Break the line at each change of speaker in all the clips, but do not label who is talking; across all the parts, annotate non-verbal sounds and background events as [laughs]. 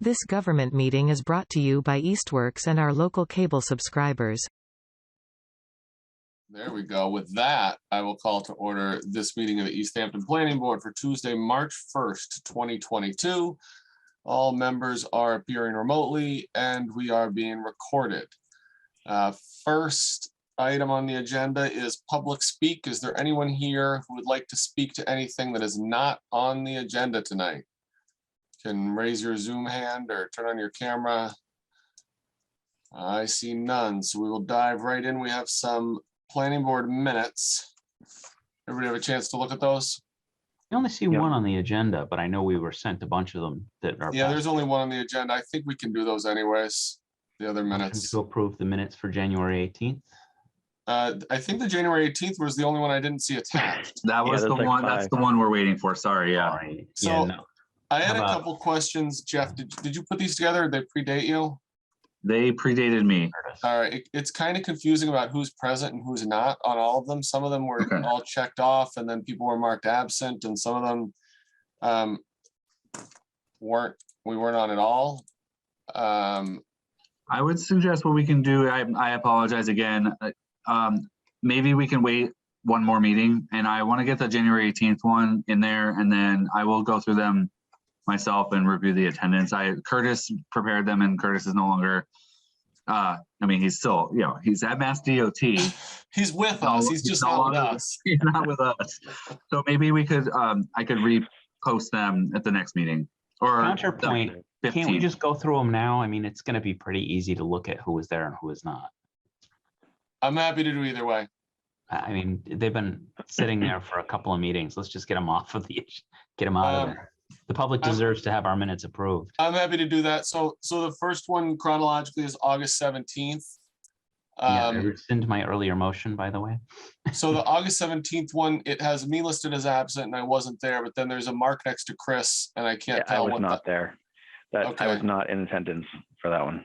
This government meeting is brought to you by Eastworks and our local cable subscribers.
There we go. With that, I will call to order this meeting of the East Hampton Planning Board for Tuesday, March first, twenty twenty-two. All members are appearing remotely and we are being recorded. Uh, First item on the agenda is public speak. Is there anyone here who would like to speak to anything that is not on the agenda tonight? Can raise your Zoom hand or turn on your camera. I see none, so we will dive right in. We have some planning board minutes. Everybody have a chance to look at those?
I only see
Yep.
one on the agenda, but I know we were sent a bunch of them that are.
Yeah, there's only one on the agenda. I think we can do those anyways, the other
Motion
minutes.
To approve the minutes for January eighteenth.
Uh, I think the January eighteenth was the only one I didn't see attached.
That
Yeah,
was
that's
the
like
one, that's
five.
the one we're waiting for. Sorry, yeah.
So-
Yeah, no,
I had a
How about-
couple questions, Jeff. Did, did you put these together? Did they predate you?
They predated me.
Curtis.
All right, it- it's kind of confusing about who's present and who's not on all of them. Some of them were
Okay.
all checked off and then people were marked absent and some of them um, weren't, we weren't on at all. Um,
I would suggest what we can do, I, I apologize again. uh, Um, maybe we can wait one more meeting and I want to get the January eighteenth one in there and then I will go through them myself and review the attendance. I, Curtis prepared them and Curtis is no longer, uh, I mean, he's still, you know, he's at Mass DOT. [laughs] He's
He's with
No,
us. He's
he's
just
no
not with
longer-
us.
not with us. So maybe we could, um, I could repost them at the next meeting or. the
Counterpoint, can't we
15th.
just go through them now? I mean, it's gonna be pretty easy to look at who was there and who was not.
I'm happy to do either way.
I, I mean, they've been sitting there for a couple of meetings. Let's just get them off of the, [laughs] get them out
Um,
of there. The public
I'm-
deserves to have our minutes approved.
I'm happy to do that. So, so the first one chronologically is August seventeenth.
Yeah, I
Um,
rescind my earlier motion, by the way.
so the August seventeenth one, it has me listed as absent and I wasn't there, but then there's a mark next to Chris and I
Yeah,
can't
I
tell
was
what.
not
the-
there. That, I was
Okay.
not in attendance for that one.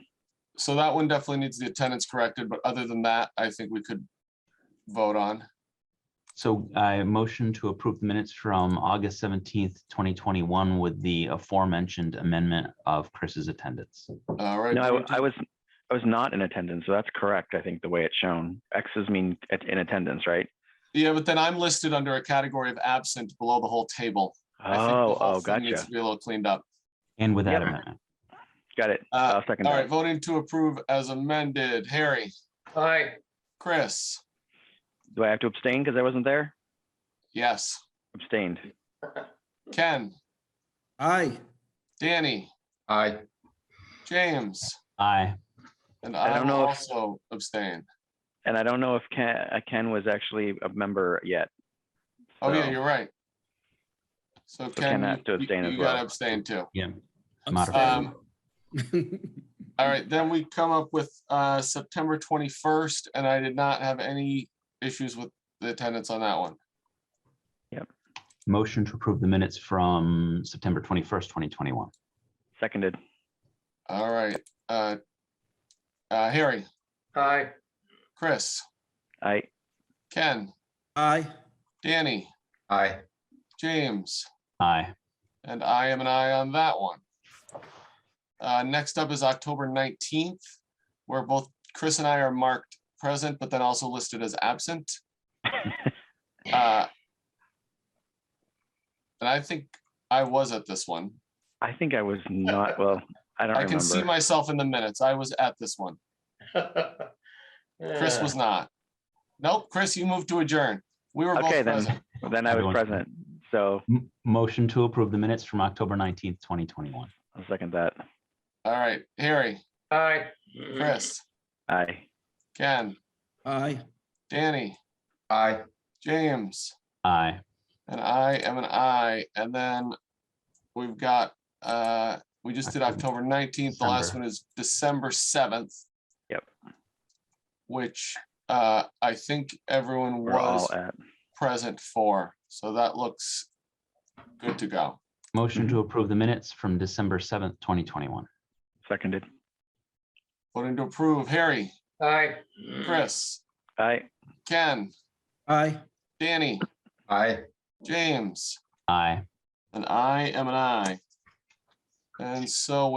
So that one definitely needs the attendance corrected, but other than that, I think we could vote on.
So I motion to approve the minutes from August seventeenth, twenty twenty-one with the aforementioned amendment of Chris's attendance.
All right.
No, I
do we
w- I, was, I was not in attendance, so that's correct, I think, the way it's shown. X's mean at- in attendance, right?
do- Yeah, but then I'm listed under a category of absent below the whole table. I think the
Oh,
whole
oh,
thing needs
gotcha.
to Be a little cleaned up.
And with that
Yeah.
amendment,
Got it.
Uh,
I'll second
All right,
that.
voting to approve as amended. Harry,
Aye,
Chris,
Do I have to abstain because I wasn't there?
yes.
Abstained.
Ken,
Aye,
Danny,
aye,
James,
aye,
and
I
I
don't
will
know if-
also abstain.
And I don't know if Ken, uh, Ken was actually a member yet.
Oh, yeah,
So-
you're right. So Ken,
Ken has to
you-
abstain
you
as
you gotta
well.
abstain too.
yeah.
Abstain.
Um, All right, then we come up with uh, September 21st, and I did not have any issues with the attendance on that one.
Motion to approve the minutes from September twenty-first, twenty twenty-one.
Seconded.
All right. uh, uh, Harry,
aye,
Chris,
I,
Ken,
[laughs] aye,
Danny,
aye,
James,
Aye,
And I am an eye on that one. Uh, next up is October nineteenth, where both Chris and I are marked present, but then also listed as
[laughs]
absent. Uh, And I think I was at this one.
I think
[laughs]
I was not, well, I don't
I can see
remember.
myself in the minutes. I was at this one. Chris
[laughs]
was not. Nope, Chris, you moved to adjourn. We were
Okay,
both
then.
present.
Then I was
Everyone.
present, so
M- motion to approve the minutes from October nineteenth, twenty twenty-one.
I'll second that.
All right, Harry,
aye.
Chris,
Aye.
Ken,
aye.
Danny,
Aye,
James.
Aye,
And I am an I, and then we've got, uh, we just did
October-
October nineteenth, the last
December.
one is December seventh.
Yep.
Which, uh, I think everyone
We're all
was
at.
present for, so that looks good to go.
motion to approve the minutes from December seventh, twenty twenty-one.
Seconded.
Voting to approve, Harry,
aye.
Chris,
Aye.
Ken,
Aye.
Danny,
Aye,
James,
Aye.
and I am an I. And so